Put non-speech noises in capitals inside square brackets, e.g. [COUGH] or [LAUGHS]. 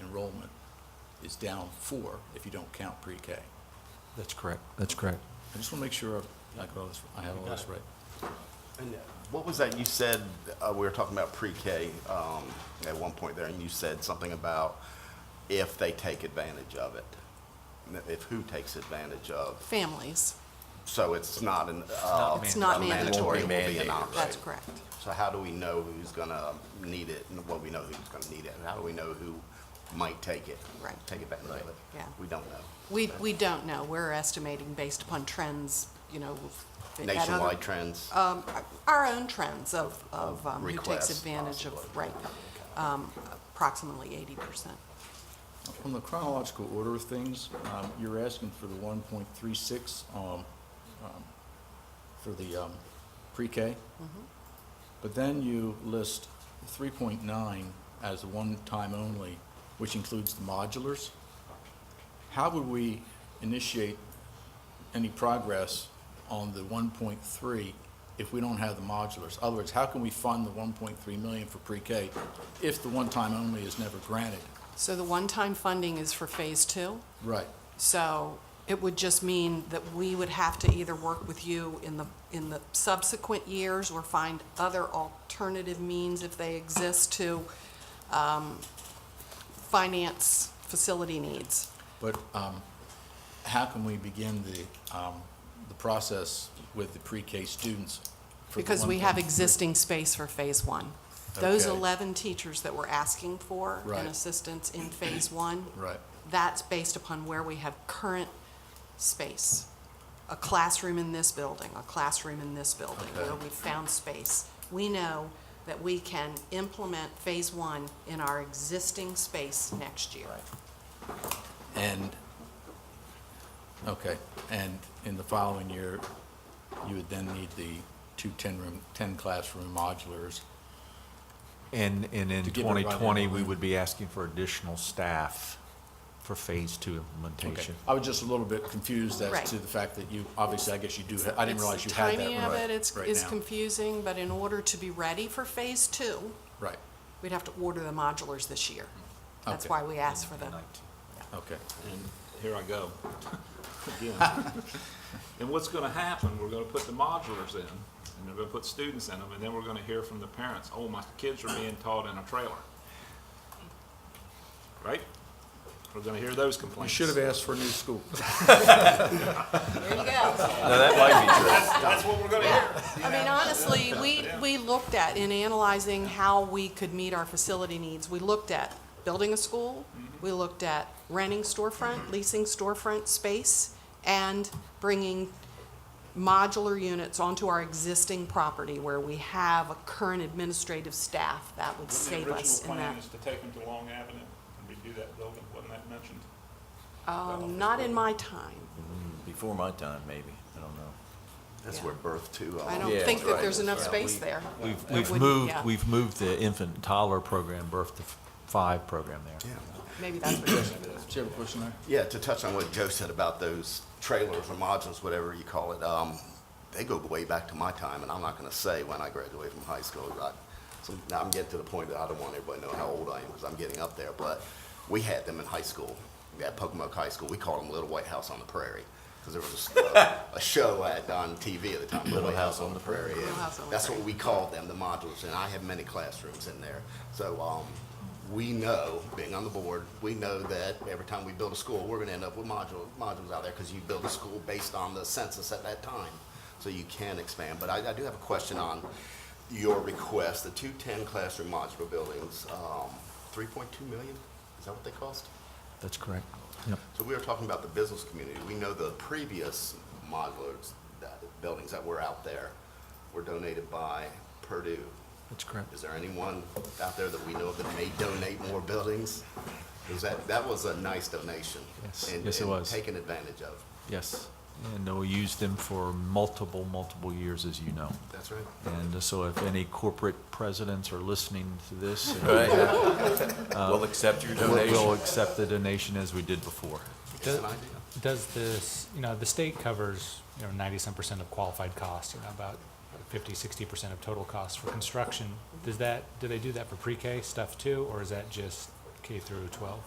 enrollment is down four if you don't count pre-K. I That's correct, that's correct. just want to make sure I've- I got all this, I have all this right. And uh, What was that you said, uh, we were talking about pre-K, um, at one point there, and you said something about if they take advantage of it. If who takes advantage of, Families, so it's not an, uh. It's not a mandatory. It will be an Mandated. option. that's correct. So how do we know who's gonna need it, and well, we know who's gonna need it, and how do we know who might take it? Right. Take advantage of it? Yeah. We don't know. We, we don't know. We're estimating based upon trends, you know. of- at other- Nationwide trends? Um, our own trends of, of um, who takes Requests, advantage of, possibly. right, um, approximately eighty percent. From the chronological order of things, um, you're asking for the one point three six, um, um, for the, um, pre-K. But then you list three point nine as one-time only, which includes the modulars. How would we initiate any progress on the one point three if we don't have the modulars? In other words, how can we fund the one point three million for pre-K if the one-time only is never granted? So the one-time funding is for phase two. Right. So it would just mean that we would have to either work with you in the, in the subsequent years or find other alternative means if they exist to um, finance facility needs. But um, how can we begin the, um, the process with the pre-K students? for the Because we have 1.3? existing space for phase one. Those Okay. 11 teachers that we're asking for Right. and assistance in phase one. Right. That's based upon where we have current space. A classroom in this building, a classroom in this building, where Okay. we've found space. We know that we can implement phase one in our existing space next year. And, okay, and in the following year, you would then need the two 10-room, 10-classroom modulars. And, and in To give everybody 2020, we room. would be asking for additional staff for Phase Two implementation. I was just a little bit confused Right. as to the fact that you, obviously, I guess you do, ha- I didn't It's realize you the had that Timing of right it, it's, right it's now. confusing, but in order to be ready for phase two, Right, we'd have to order the modulars this year. That's Okay. why we asked for them. okay. and here I go. [LAUGHS] Again. [LAUGHS] And what's gonna happen, we're gonna put the modulars in, and they're gonna put students in them, and then we're gonna hear from the parents, oh, my kids are being taught in a trailer. Right? We're gonna hear those You complaints. should have asked for a new school. There you go. That's what we're gonna hear. I mean, honestly, we, we looked at, in analyzing how we could meet our facility needs, we looked at building a school, Mm-hmm. we looked at renting storefront, leasing storefront space, and bringing modular units onto our existing property where we have a current administrative staff that would Wasn't save The us original in plan that. is to take them to Long Avenue and redo that building, wasn't that mentioned? Um, not in my time. Before my time, maybe, I don't know. That's yeah. where birth to. I don't Yeah, think that right. there's enough Yeah, space we- there. We've, That we've wouldn't- moved, yeah. we've moved the infant and toddler program, birth to f- five program there. Maybe that's [CLEARS THROAT] what you should do. Do you have a question there? Yeah, to touch on what Joe said about those trailers or modules, whatever you call it, um, they go way back to my time, and I'm not gonna say when I graduated from high school. I, so now I'm getting to the point that I don't want everybody to know how old I am, because I'm getting up there, but we had them in high school. At Pocomoke High School, we called them Little White House on the Prairie, because there was a, a show at, on TV at the time, Little White House on the Prairie. Little House on the That's Prairie. what we called them, the modules, and I have many classrooms in there. So um, we know, being on the board, we know that every time we build a school, we're gonna end up with module, modules out there, because you build a school based on the census at that time. So you can expand, but I, I do have a question on your request, the two ten classroom modular buildings, um, three point two million, is that what they cost? That's correct. Yep. So we were talking about the business community. We know the previous modulars, that, buildings that were out there were donated by Purdue. That's correct. Is there anyone out there that we know of that may donate more buildings? Is that, that was a nice donation. Yes. and- Yes, it was. And taken advantage of. Yes. And we used them for multiple, multiple years, as you know. That's right. And so if any corporate presidents are listening to this, [LAUGHS] We'll accept your we'll we'll donation. accept the donation as we did before. It's Does- an idea. Does this, you know, the state covers, you know, ninety-some percent of qualified costs, you know, about 50, 60 percent of total costs for construction. Does that, do they do that for pre-K stuff too, or is that just K through twelve?